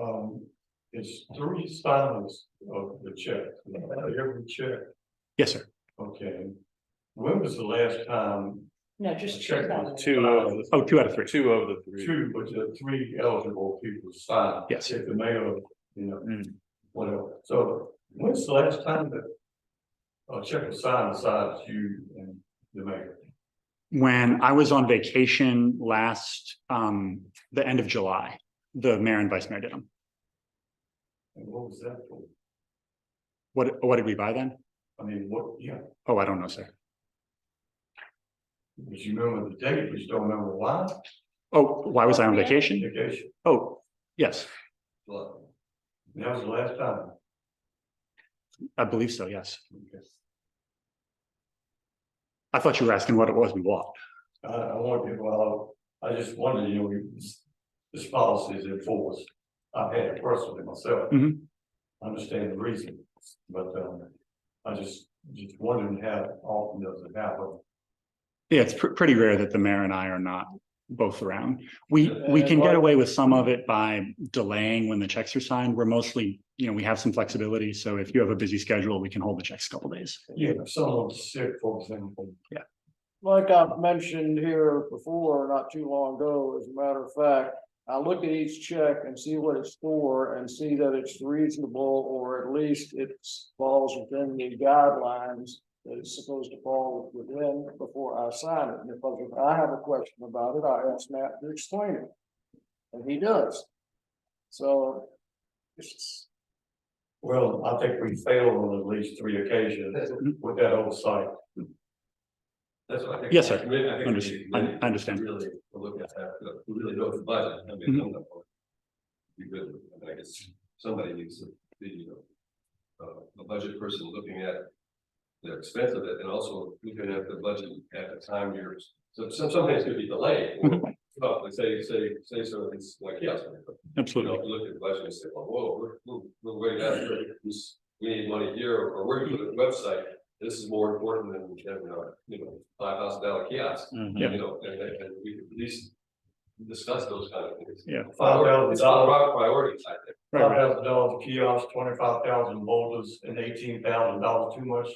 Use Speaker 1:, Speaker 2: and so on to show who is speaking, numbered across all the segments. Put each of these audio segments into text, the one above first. Speaker 1: um, is three signers of the check, every check,
Speaker 2: Yes, sir.
Speaker 1: okay. When was the last time
Speaker 3: No,
Speaker 1: a
Speaker 3: just.
Speaker 1: check was
Speaker 3: $2.
Speaker 1: two of the?
Speaker 2: Oh, two out of three.
Speaker 4: Two of the three.
Speaker 1: Two, but the three eligible people signed.
Speaker 2: Yes.
Speaker 1: If the mayor, you know,
Speaker 4: Mm.
Speaker 1: whatever, so when's the last time that a check was signed besides you and the mayor?
Speaker 2: When I was on vacation last, um, the end of July, the mayor and vice mayor did them.
Speaker 1: And what was that for?
Speaker 2: What, what did we buy then?
Speaker 1: I mean, what, yeah,
Speaker 2: Oh, I don't know, sir.
Speaker 1: because you remember the date, but you don't remember why,
Speaker 2: Oh, why was I on vacation?
Speaker 1: vacation,
Speaker 2: Oh, yes,
Speaker 1: but that was the last time.
Speaker 2: I believe so, yes.
Speaker 1: Okay.
Speaker 2: I thought you were asking what it was we bought.
Speaker 1: I, I wanted, well, I just wondered, you know, we- this, this policy is enforced. I've had it personally myself.
Speaker 2: Mhm.
Speaker 1: I Understand the reason, but, um, I just, just wondering how often does it happen?
Speaker 2: Yeah, it's pr- pretty rare that the mayor and I are not both around. We, we can get away with some of it by delaying when the checks are signed. We're mostly, you know, we have some flexibility. So if you have a busy schedule, we can hold the checks a couple days.
Speaker 1: Yeah, if someone's sick, for example.
Speaker 5: Like I've mentioned here before, not too long ago, as a matter of fact, I look at each check and see what it's for and see that it's reasonable or at least it falls within the guidelines that it's supposed to fall within before I sign it. And if I- if I have a question about it, I ask Matt to explain it. And he does. So it's
Speaker 1: Well, I think we failed on at least three occasions with that oversight.
Speaker 6: That's what I think.
Speaker 2: Yes, sir.
Speaker 6: I mean, I think we
Speaker 2: Unders-
Speaker 6: need to
Speaker 2: I-
Speaker 6: really-
Speaker 2: I understand.
Speaker 6: Really look at that, look, we really know the budget. I mean,
Speaker 2: Mhm.
Speaker 6: I'm not- Be good, I mean, I guess somebody needs to be, you know. Uh, a budget person looking at the expense of it and also looking at the budget at the time you're, so some, some things could be delayed. or-
Speaker 2: Mhm.
Speaker 6: Well, Oh, like say, say, say something's like, yes, but you know,
Speaker 2: Absolutely.
Speaker 6: if you look at the budget and say, well, whoa, we're, we're- we're way down here. This- We need money here, or we're going to the website. This is more important than, you know, you know, five thousand dollar kiosk.
Speaker 2: Mm-hmm. Yeah.
Speaker 6: You know, and, and we could at least discuss those kind of things.
Speaker 2: Yeah.
Speaker 1: Five
Speaker 6: It's
Speaker 1: thousand
Speaker 6: all
Speaker 1: dollars,
Speaker 6: about priorities, I think.
Speaker 2: Right,
Speaker 1: five
Speaker 2: right.
Speaker 1: thousand dollars kiosks, twenty-five thousand boulders, and eighteen thousand dollars too much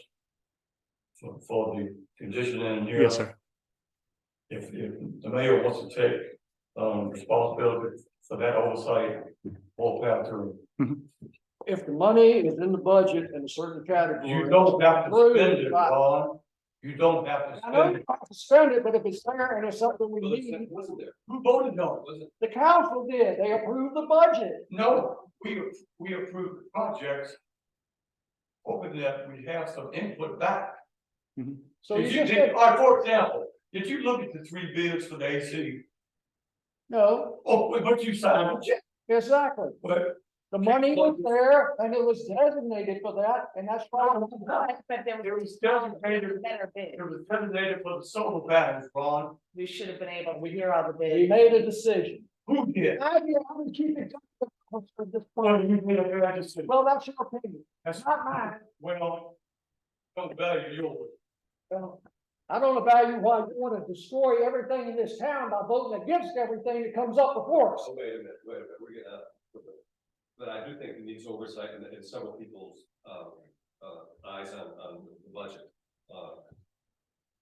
Speaker 1: for, for the condition in here.
Speaker 2: Yes, sir.
Speaker 1: If, if the mayor wants to take, um, responsibility for that oversight, we'll have to,
Speaker 5: if the money is in the budget in a certain category.
Speaker 1: you don't have to spend it, Ron. You don't have to
Speaker 5: I know
Speaker 1: spend
Speaker 5: you
Speaker 1: it.
Speaker 5: have to spend it, but if it's there and it's something we
Speaker 6: Well, it's-
Speaker 5: need,
Speaker 6: it wasn't there,
Speaker 1: Who voted on it?
Speaker 6: wasn't it?
Speaker 5: the council did, they approved the budget.
Speaker 1: No, we, we approved projects. Hoping that we have some input back.
Speaker 5: So you
Speaker 1: Did you,
Speaker 5: just
Speaker 1: did,
Speaker 5: said,
Speaker 1: all right, for example, did you look at the three bids for the AC?
Speaker 5: no,
Speaker 1: Oh, but- but you signed a check,
Speaker 5: exactly.
Speaker 1: but
Speaker 5: The money was there and it was designated for that, and that's why. we got it.
Speaker 3: But but there
Speaker 1: it
Speaker 3: was.
Speaker 1: was designated,
Speaker 3: Better bid.
Speaker 1: it was designated for the solar panels, Ron.
Speaker 3: We should have been able to hear all the
Speaker 5: We
Speaker 3: bids.
Speaker 5: made a decision.
Speaker 1: Who did?
Speaker 5: I mean, I would keep it. confidential for this
Speaker 1: Well,
Speaker 5: point.
Speaker 1: you did, I just said,
Speaker 5: Well, that's your opinion.
Speaker 1: that's
Speaker 5: not mine.
Speaker 1: Well, don't value yours.
Speaker 5: Well, I don't value why you want to destroy everything in this town by voting against everything that comes up before us.
Speaker 6: Oh, wait a minute, wait a minute, we're getting out. of it. But I do think it needs oversight and, and several people's, um, uh, eyes on, on the budget. uh,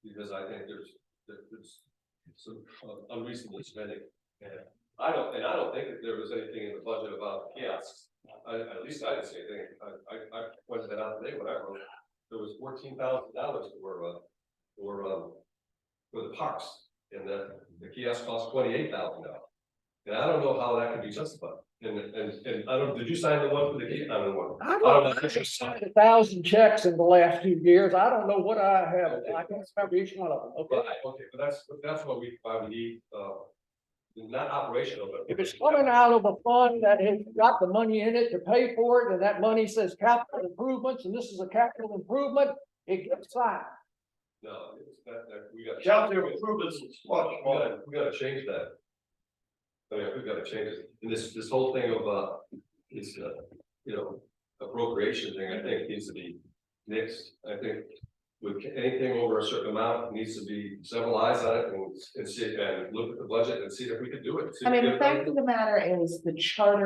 Speaker 6: Because I think there's, there- there's some uh, unreasonable spending. And I don't, and I don't think that there was anything in the budget about kiosks. I, at least I didn't see anything. I, I, I pointed that out today when I wrote, there was fourteen thousand dollars for, uh, for, um, for the parks. And the, the kiosk cost twenty-eight thousand dollars. And I don't know how that can be justified. And, and, and I don't, did you sign the one for the gate? I don't
Speaker 1: Oh,
Speaker 6: know.
Speaker 5: I
Speaker 6: I don't
Speaker 5: don't,
Speaker 6: know.
Speaker 5: I just signed a thousand checks in the last few years. I don't know what I have. I can't remember each one of them, okay?
Speaker 6: Right, okay, but that's, but that's what we, why we need, uh, not operational, but.
Speaker 5: If it's coming out of a fund that has got the money in it to pay for it, and that money says capital improvements, and this is a capital improvement, it gets signed.
Speaker 6: No, it's that, that, we got.
Speaker 1: Capital improvements is much
Speaker 6: We
Speaker 1: more.
Speaker 6: gotta, we gotta change that. I mean, we gotta change it. And this, this whole thing of, uh, this, uh, you know, appropriation thing, I think needs to be mixed. I think with anything over a certain amount, needs to be several eyes on it and, and see, and look at the budget and see if we could do it. see
Speaker 3: I
Speaker 6: if we
Speaker 3: mean, the
Speaker 6: can-
Speaker 3: fact of the matter is the charter